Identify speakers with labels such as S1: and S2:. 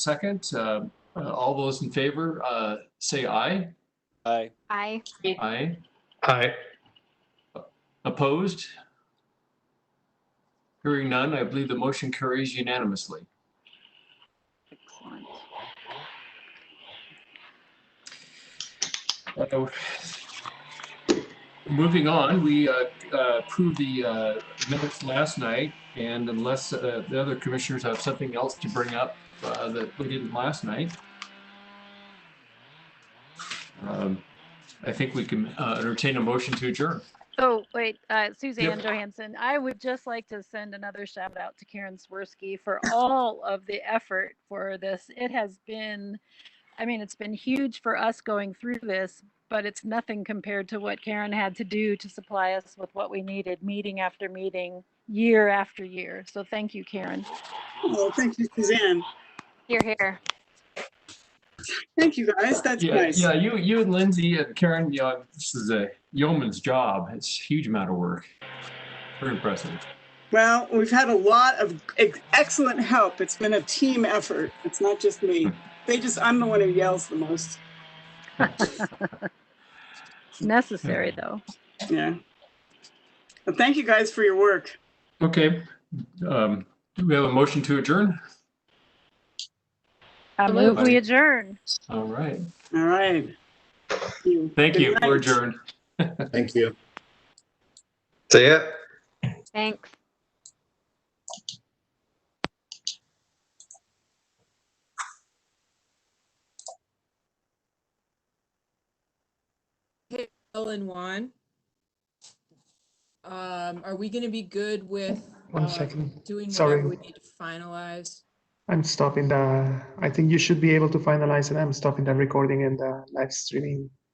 S1: second. Uh, uh, All those in favor, uh, say aye.
S2: Aye.
S3: Aye.
S1: Aye.
S4: Aye.
S1: Opposed? Hearing none, I believe the motion carries unanimously. Uh,
S3: Excellent.
S1: Moving on, we uh, uh, approved the uh, minutes last night, and unless uh, the other commissioners have something else to bring up uh, that we didn't last night, um, I think we can uh, entertain a motion to adjourn.
S5: Oh, wait, uh, Suzanne Johansson, I would just like to send another shout out to Karen Swirsky for all of the effort for this. It has been, I mean, it's been huge for us going through this, but it's nothing compared to what Karen had to do to supply us with what we needed, meeting after meeting, year after year. So thank you, Karen.
S6: Oh, thank you, Suzanne.
S3: You're here.
S6: Thank you, guys. That's
S1: Yeah,
S6: nice.
S1: yeah, you, you and Lindsay and Karen, you know, this is a yeoman's job. It's a huge amount of work. Very impressive.
S6: Well, we've had a lot of ex- excellent help. It's been a team effort. It's not just me. They just, I'm the one who yells the most.
S5: It's necessary, though.
S6: Yeah. But thank you guys for your work.
S1: Okay, um, do we have a motion to adjourn?
S5: I move
S1: Absolutely.
S5: we adjourn.
S1: All right,
S6: All right. Thank you.
S1: thank
S6: Good
S1: you,
S6: night.
S1: we're adjourned.
S7: Thank you.
S4: See ya.
S3: Thanks.
S8: Bill and Juan. Um, are we gonna be good with?
S4: One
S8: uh,
S4: second.
S8: Doing
S4: Sorry.
S8: whatever we need to finalize?
S4: I'm stopping the, I think you should be able to finalize it. I'm stopping the recording and the live streaming